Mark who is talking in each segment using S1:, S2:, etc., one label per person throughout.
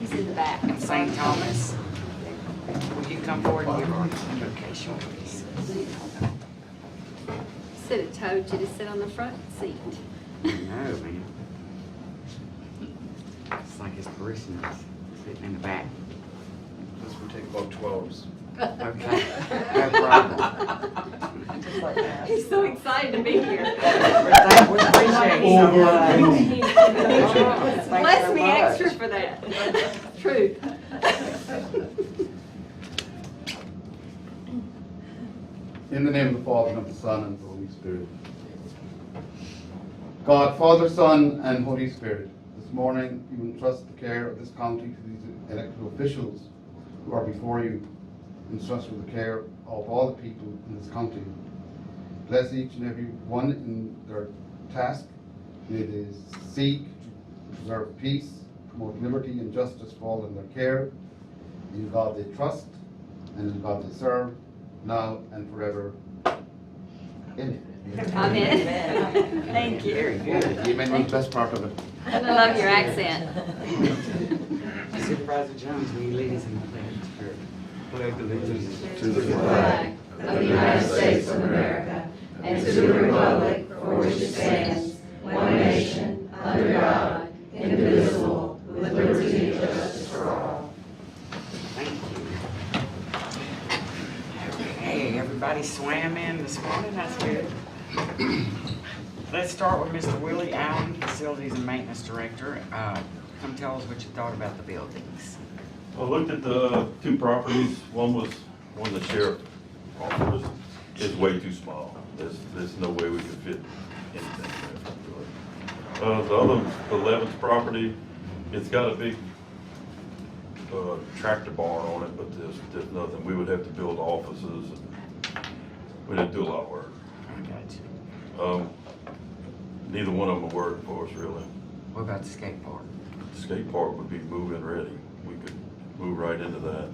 S1: the back.
S2: and St. Thomas. Will you come forward and give our invocation, please?
S1: Should have told you to sit on the front seat.
S3: No, man. It's like his parishioners sitting in the back.
S4: This would take about twelves.
S3: Okay, no problem.
S1: He's so excited to be here.
S2: We appreciate you so much.
S1: Bless me extra for that. True.
S4: In the name of the Father, and of the Son, and of the Holy Spirit. God, Father, Son, and Holy Spirit, this morning you entrust the care of this county to these elected officials who are before you, entrust with the care of all the people in this county. Bless each and every one in their task. May they seek to preserve peace, promote liberty and justice for all in their care. In God they trust, and in God they serve, now and forever. Amen.
S1: I'm in. Thank you.
S3: Very good.
S4: You made me the best part of it.
S1: I love your accent.
S3: Supervisor Jones, will you lead us in the pledge? Pledge allegiance.
S4: To the
S5: flag of the United States of America and to the republic for which it stands, one nation, under God, indivisible, with liberty and justice for all.
S3: Thank you. Okay, everybody swam in this morning, that's good. Let's start with Mr. Willie Allen, Facilities and Maintenance Director. Uh, Come tell us what you thought about the buildings.
S6: I looked at the two properties, one was, one the sheriff offered us, is way too small. There's, there's no way we could fit anything there. Uh, the other, the Levin's property, it's got a big, uh, tractor barn on it, but there's, there's nothing. We would have to build offices and we'd have to do a lot of work.
S3: I got you.
S6: Um, neither one of them would work for us really.
S3: What about the skate park?
S6: Skate park would be move-in ready. We could move right into that.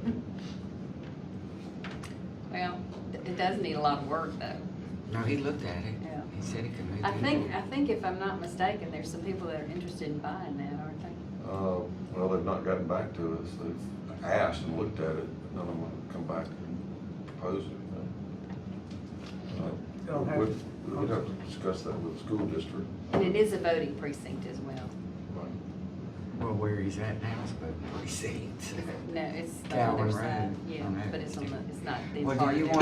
S5: Well,
S1: It does need a lot of work, though.
S3: No, he looked at it.
S1: Yeah.
S3: He said he could move in.
S1: I think, I think if I'm not mistaken, there's some people that are interested in buying that, aren't they?
S7: Uh, Well, they've not gotten back to us. They've asked and looked at it, but none of them have come back and proposed anything. Uh, We'd we'd have to discuss that with the school district.
S1: And it is a voting precinct as well.
S3: Well, where he's at now is about precincts.
S1: No, it's the
S3: Tower
S1: other
S3: Road,
S1: side, yeah,
S3: on that
S1: but it's on the, it's not the
S3: Well,
S1: part
S3: do you
S1: that-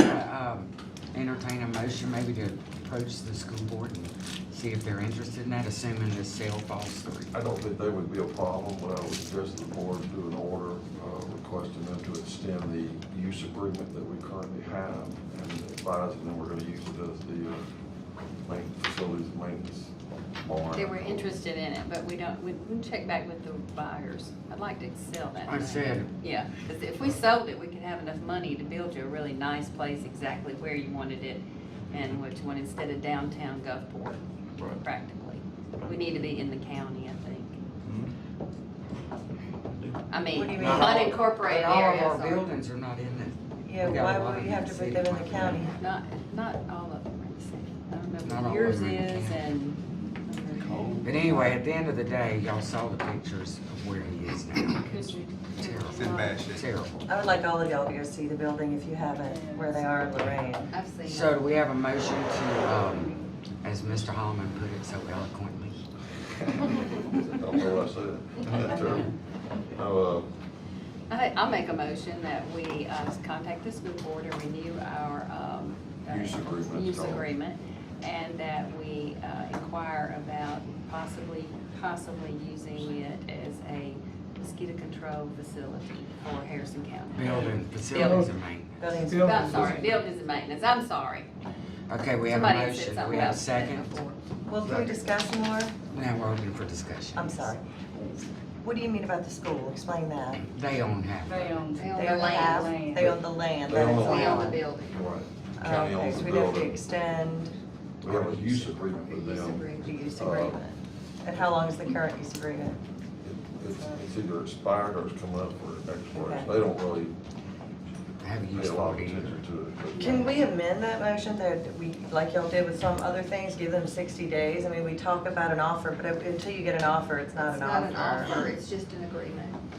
S3: want to entertain a motion maybe to approach the school board and see if they're interested in that, assuming this sale falls through?
S7: I don't think they would be a problem, but I would suggest the board do an order uh, requesting them to extend the use agreement that we currently have and advising them we're going to use it as the uh, main facilities maintenance barn.
S1: They were interested in it, but we don't, we we check back with the buyers. I'd like to sell that.
S3: I
S1: thing.
S3: said,
S1: Yeah, because if we sold it, we could have enough money to build you a really nice place exactly where you wanted it and what you want instead of downtown Gulfport,
S6: Right.
S1: practically. We need to be in the county, I think. I mean,
S5: What do you mean?
S1: unincorporated
S3: but all of our
S1: areas.
S3: buildings are not in it.
S5: yeah,
S3: We got a
S5: why
S3: lot
S5: would
S3: of
S5: you have to
S3: city
S5: put them in the county?
S3: property.
S1: are Not, not all of them, are the same. I don't know
S3: Not all
S1: what
S3: of
S1: yours
S3: them are in the
S1: is
S3: county.
S1: and.
S3: But anyway, at the end of the day, y'all saw the pictures of where he is now. Terrible. Terrible.
S5: I would like all of y'all to go see the building if you haven't, where they are in Lorraine.
S1: I've seen
S3: So
S1: that.
S3: do we have a motion to, um, as Mr. Holloman put it so eloquently,
S7: I don't know what I said. That term. No, uh,
S1: I- I'll make a motion that we uh, contact the school board and renew our. um, uh,
S7: Use agreement.
S1: Use agreement, and that we uh, inquire about possibly, possibly using it as a mosquito control facility for Harrison County.
S3: building facilities and maintenance?
S5: Buildings-
S1: I'm sorry, buildings and maintenance, I'm sorry.
S3: Okay, we have a
S1: Somebody said
S3: motion. Do
S1: something
S3: we have a
S1: else about that
S3: second?
S1: before.
S5: Well, can we discuss more?
S3: Now we're open for discussion.
S5: I'm sorry. What do you mean about the school? Explain that.
S3: They own half. of it.
S1: They own
S5: They
S1: the
S5: own the
S1: land.
S5: house, they own the land,
S7: They
S5: that
S7: own
S5: is
S7: the
S1: We own the
S5: allowed.
S1: building.
S7: right.
S5: Oh,
S7: County
S5: okay,
S7: owns
S5: so
S7: the
S5: we'd have to
S7: building.
S5: extend
S7: We have a use agreement with
S1: Use
S7: them.
S1: agreement.
S5: the use
S7: Uh,
S5: agreement. And how long is the current use agreement?
S7: It- It's, it's either expired or it's coming up for expiration.
S5: Okay.
S7: They don't really
S3: Have you
S7: pay
S3: used
S7: a lot
S3: for
S7: of
S3: it either?
S7: attention to it.
S5: Can we amend that motion that we, like y'all did with some other things, give them sixty days? I mean, we talk about an offer, but until you get an offer, it's not
S1: It's
S5: an
S1: not an
S5: offer.
S1: offer, it's just an agreement.